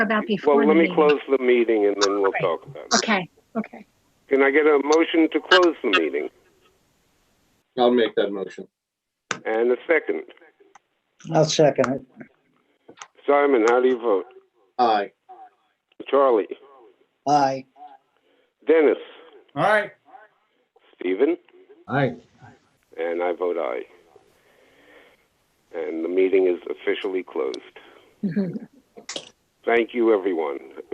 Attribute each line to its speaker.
Speaker 1: about before
Speaker 2: Well,
Speaker 1: the
Speaker 2: let me
Speaker 1: meeting.
Speaker 2: close the meeting and then we'll
Speaker 1: Great.
Speaker 2: talk about it.
Speaker 1: Okay, okay.
Speaker 2: Can I get a motion to close the meeting
Speaker 3: I'll make that motion.
Speaker 2: and a second?
Speaker 4: I'll second it.
Speaker 2: Simon, how do you vote?
Speaker 3: Aye.
Speaker 2: Charlie?
Speaker 4: Aye.
Speaker 2: Dennis?
Speaker 3: All right.
Speaker 2: Stephen?
Speaker 3: Aye.
Speaker 2: And I vote aye. And the meeting is officially closed. Thank you, everyone.